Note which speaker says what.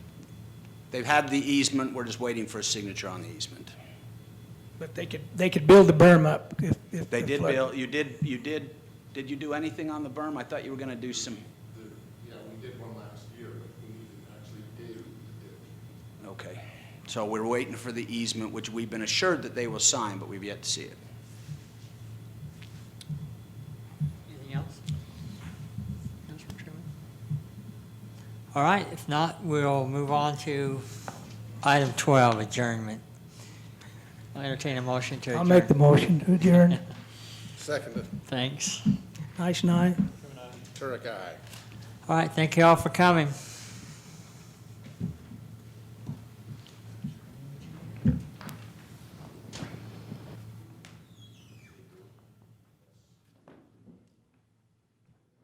Speaker 1: They've had the easement, we're just waiting for a signature on the easement.
Speaker 2: But they could, they could build the berm up if, if.
Speaker 1: They
Speaker 2: the
Speaker 1: did
Speaker 2: flood-
Speaker 1: build, you did, you did, did you do anything on the berm? I thought you were gonna do some,
Speaker 3: The- Yeah, we did one last year, but we didn't actually do the ditch.
Speaker 1: okay. So we're waiting for the easement, which we've been assured that they will sign, but we've yet to see it.
Speaker 4: Anything else? Councilman Truman? All right, if not, we'll move on to item 12, adjournment. I'll entertain a motion to adjourn.
Speaker 2: I'll make the motion to adjourn.
Speaker 3: Seconded,
Speaker 4: Thanks.
Speaker 2: Nice night.
Speaker 3: Turek, aye.
Speaker 4: All right, thank you all for coming.